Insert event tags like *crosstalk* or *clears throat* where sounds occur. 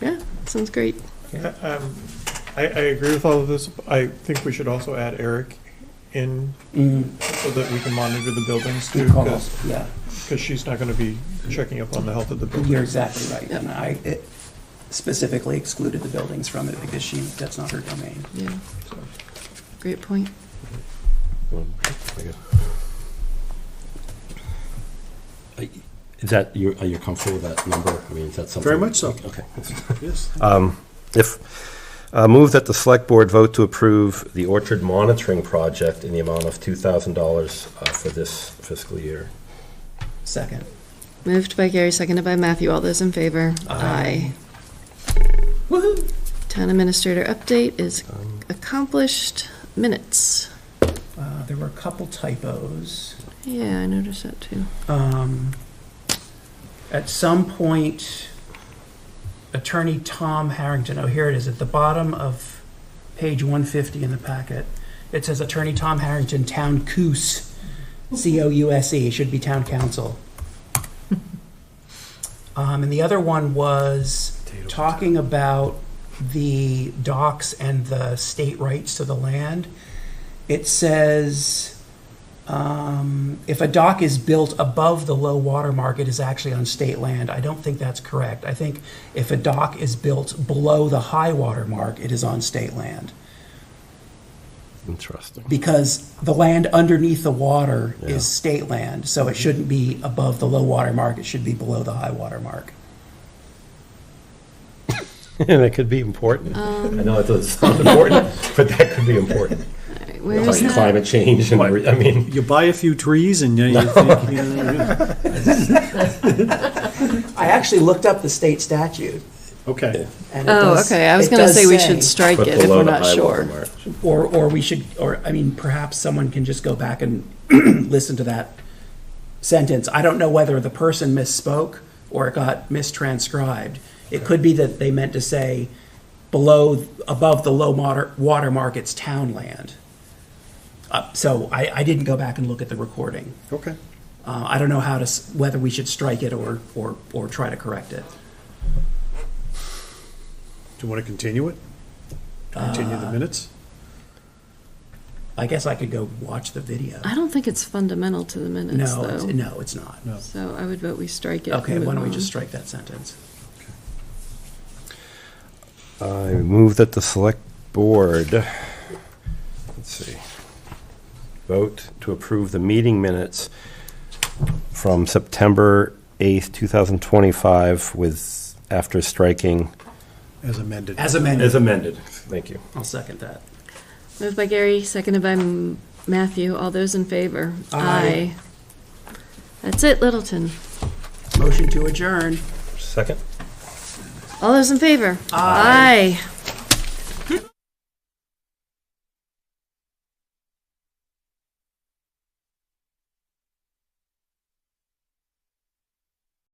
Sounds great. Um, I, I agree with all of this. I think we should also add Eric in Mm, so that we can monitor the buildings too, good call, because yeah. she's not going to be checking up on the health of the building. You're exactly right. And I it specifically excluded the buildings from it because she, that's not her domain. Yeah, So, great point. Um, Is that, you're, are you comfortable with that number? I mean, is that something? Very much so. Okay. Yes. Um, If, uh, move that the select board vote to approve the orchard monitoring project in the amount of two thousand dollars, uh, for this fiscal year. Second. Moved by Gary, seconded by Matthew. All those in favor? Aye. Woohoo! Town administrator update is Um, accomplished. Minutes. Uh, There were a couple typos. Yeah, I noticed that too. Um, At some point, Attorney Tom Harrington, oh, here it is, at the bottom of page 150 in the packet. It says Attorney Tom Harrington, Town Coos, C-O-U-S-E, E, it should be Town Council. Um, And the other one was talking about the docks and the state rights to the land. It says um, if a dock is built above the low water mark, it is actually on state land. I don't think that's correct. I think if a dock is built below the high water mark, it is on state land. Interesting. Because the land underneath the water Yeah. is state land, so it shouldn't be above the low water mark, it should be below the high water mark. *laughs* And it could be important. Um. I know it doesn't sound important, but that could be important. All right, where is Like that? climate change and, re- I mean, You buy a few trees and you you think, you know, I actually looked up the state statute, okay. and it Oh, does- okay. I was it gonna does say we should strike but it if we're below the not high sure. water mark. Or, or we should, or, I mean, perhaps someone can just go back and *clears throat* listen to that sentence. I don't know whether the person misspoke or it got mistranscribed. It could be that they meant to say below, above the low water, water mark, it's town land. Uh, so I, I didn't go back and look at the recording. Okay. Uh, I don't know how to, s- whether we should strike it or, or, or try to correct it. Do you want to continue it? Continue the minutes? I guess I could go watch the video. I don't think it's fundamental to the minutes No, it's- though. no, it's not. So I would vote we strike it. Okay, and why don't we move just on. strike that sentence? I move that the select board, let's see, vote to approve the meeting minutes from September 8th, 2025 with, after striking. As amended. As amended. amended. Thank you. I'll second that. Moved by Gary, seconded by M- Matthew. All those in favor? Aye. Aye. That's it, Littleton. Motion to adjourn. Second? All those in favor? Aye.